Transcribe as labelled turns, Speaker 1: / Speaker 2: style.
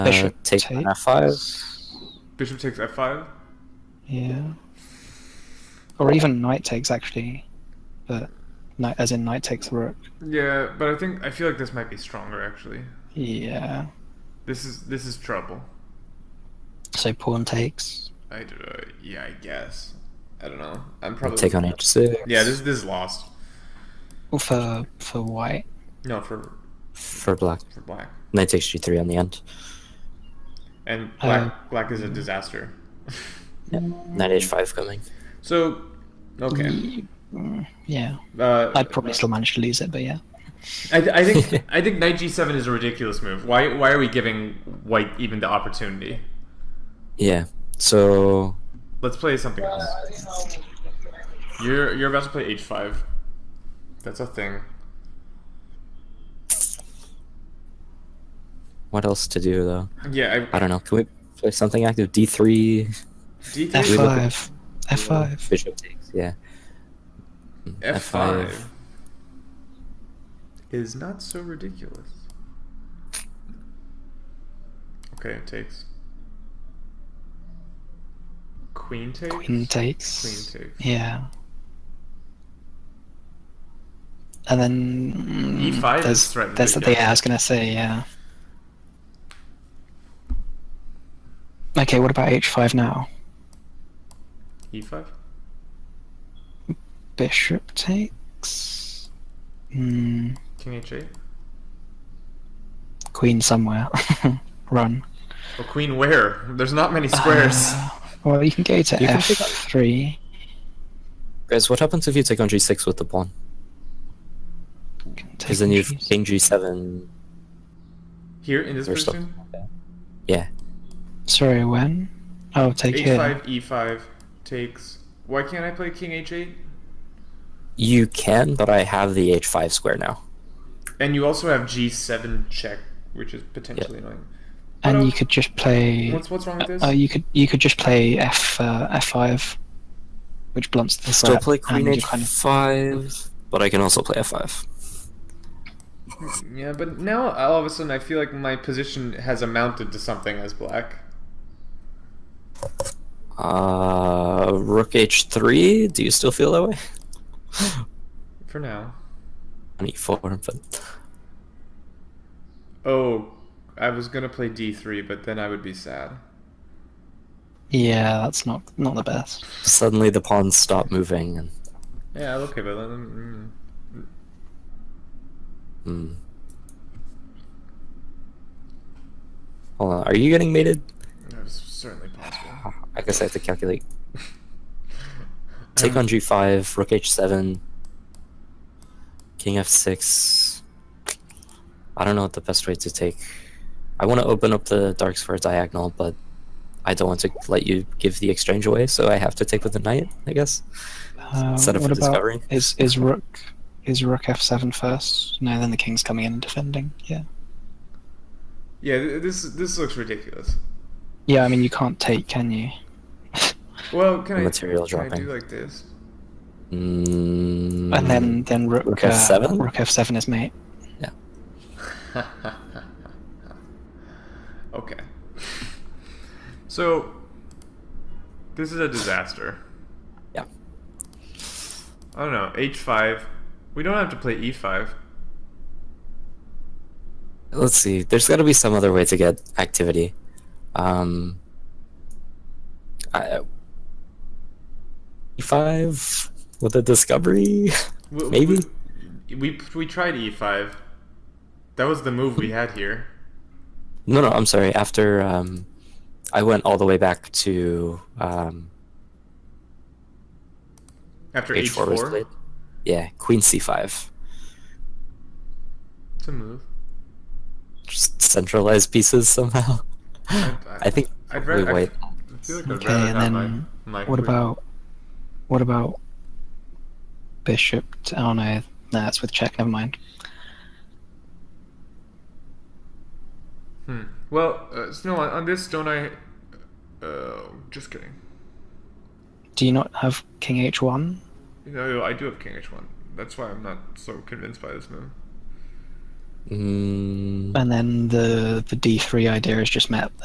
Speaker 1: Bishop
Speaker 2: Uh, take an f5.
Speaker 3: Bishop takes f5.
Speaker 1: Yeah. Or even knight takes actually, but knight as in knight takes rook.
Speaker 3: Yeah, but I think I feel like this might be stronger actually.
Speaker 1: Yeah.
Speaker 3: This is this is trouble.
Speaker 1: So pawn takes.
Speaker 3: I d- uh, yeah, I guess. I don't know. I'm probably
Speaker 2: Take on h6.
Speaker 3: Yeah, this this is lost.
Speaker 1: Or for for white.
Speaker 3: No, for
Speaker 2: for black.
Speaker 3: for black.
Speaker 2: Knight takes g3 on the end.
Speaker 3: And black
Speaker 1: Uh,
Speaker 3: black is a disaster.
Speaker 2: Knight h5 coming.
Speaker 3: So, okay.
Speaker 1: Mm, Yeah.
Speaker 3: Uh,
Speaker 1: I'd probably still manage to lose it, but yeah.
Speaker 3: I, I think I think knight g7 is a ridiculous move. Why why are we giving white even the opportunity?
Speaker 2: Yeah. So
Speaker 3: Let's play something else. You're you're about to play h5. That's a thing.
Speaker 2: what else to do though?
Speaker 3: Yeah, I,
Speaker 2: I don't know. Can we play something active? d3.
Speaker 1: F
Speaker 3: D3,
Speaker 2: look at-
Speaker 1: five. F five.
Speaker 2: Bishop takes. Yeah.
Speaker 3: F5
Speaker 2: F5.
Speaker 3: is not so ridiculous. Okay, it takes. Queen takes?
Speaker 1: Queen takes.
Speaker 3: Queen takes.
Speaker 1: Yeah. And then mm,
Speaker 3: E5 E is
Speaker 1: there's,
Speaker 3: threatened
Speaker 1: there's
Speaker 3: again.
Speaker 1: the yeah, I was gonna say, yeah. Okay, what about H five now?
Speaker 3: E5?
Speaker 1: Bishop takes. Mm,
Speaker 3: King h8?
Speaker 1: queen somewhere. Run.
Speaker 3: Well, queen where? There's not many squares.
Speaker 1: Uh, well, you can go to
Speaker 2: You can pick up-
Speaker 1: f3.
Speaker 2: Guys, what happens if you take on g6 with the pawn?
Speaker 1: take
Speaker 2: Because then you've
Speaker 1: pieces.
Speaker 2: king g7
Speaker 3: Here in this
Speaker 2: or something
Speaker 3: position?
Speaker 2: like that. Yeah.
Speaker 1: Sorry, when? Oh, take here.
Speaker 3: H5, E5 e takes. Why can't I play King H8?
Speaker 2: You can, but I have the h5 square now.
Speaker 3: And you also have G7 check, which is potentially annoying.
Speaker 1: And
Speaker 3: What
Speaker 1: you
Speaker 3: up?
Speaker 1: could just play.
Speaker 3: What's what's wrong with this?
Speaker 1: Oh, you could you could just play f uh, f5, which blunts the
Speaker 2: Still
Speaker 1: threat,
Speaker 2: play queen
Speaker 1: and you kind of-
Speaker 2: h5, but I can also play f5.
Speaker 3: Yeah, but now all of a sudden I feel like my position has amounted to something as black.
Speaker 2: Uh, rook h3. Do you still feel that way?
Speaker 3: For now.
Speaker 2: On e4, but
Speaker 3: Oh, I was gonna play D3, but then I would be sad.
Speaker 1: Yeah, that's not not the best.
Speaker 2: suddenly the pawns stop moving, and
Speaker 3: Yeah, okay, but then. mm.
Speaker 2: hmm. Hold on, are you getting mated?
Speaker 3: That's certainly possible.
Speaker 2: I guess I have to calculate.
Speaker 3: Um,
Speaker 2: Take on g5, rook h7, king f6. I don't know what the best way to take. I want to open up the darks for a diagonal, but I don't want to let you give the exchange away, so I have to take with the knight, I guess.
Speaker 1: Uh,
Speaker 2: Set up
Speaker 1: what
Speaker 2: for
Speaker 1: about
Speaker 2: discovery.
Speaker 1: is is rook is rook f7 first? No, then the king's coming in and defending. Yeah,
Speaker 3: Yeah, th- this this looks ridiculous.
Speaker 1: yeah. I mean, you can't take, can you?
Speaker 3: Well, can I,
Speaker 2: Material
Speaker 3: can I
Speaker 2: dropping.
Speaker 3: do like this?
Speaker 2: Mm,
Speaker 1: And then then rook
Speaker 2: Rook
Speaker 1: uh,
Speaker 2: F7?
Speaker 1: rook f7 is mate.
Speaker 3: okay. So, this is a disaster.
Speaker 2: Yeah.
Speaker 3: I don't know. H5. We don't have to play E E5.
Speaker 2: Let's see. There's got to be some other way to get activity. Um, I, uh, E5 with a discovery.
Speaker 3: W-
Speaker 2: Maybe.
Speaker 3: We, we, we tried E5. That was the move we had here.
Speaker 2: No, no. I'm sorry. After um, I went all the way back to um,
Speaker 3: After
Speaker 2: H4 was played.
Speaker 3: H4.
Speaker 2: Yeah, Queen C5.
Speaker 3: It's a move.
Speaker 2: Just centralize pieces somehow.
Speaker 3: I,
Speaker 2: I think
Speaker 3: I'd
Speaker 2: we
Speaker 3: rather. I
Speaker 2: wait.
Speaker 3: feel like I'd
Speaker 1: Okay,
Speaker 3: rather
Speaker 1: and then
Speaker 3: have my, my
Speaker 1: What
Speaker 3: queen.
Speaker 1: about what about bishop? t- Oh no, no, that's with check. Never mind.
Speaker 3: Hmm. Well, uh, Snow, on, on this, don't I. Uh, just kidding.
Speaker 1: Do you not have king h1?
Speaker 3: You know, I do have King H1. That's why I'm not so convinced by this move.
Speaker 2: Mm,
Speaker 1: and then the the d3 idea is just map